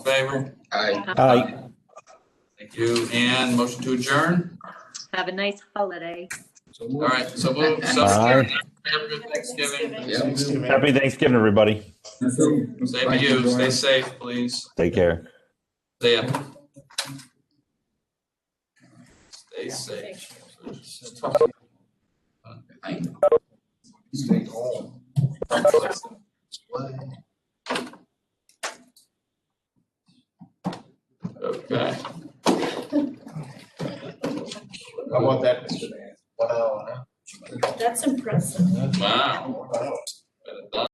favor? Aye. Uh, Aye. Thank you. And motion to adjourn? Have a nice holiday. So All moved. right, so move. so Aye. have a good Thanksgiving. Yeah. Happy Thanksgiving, everybody. Same to you. Stay safe, please. Take care. Stay up. Stay safe. I know. Stay home. Okay. That's impressive. Wow. Wow.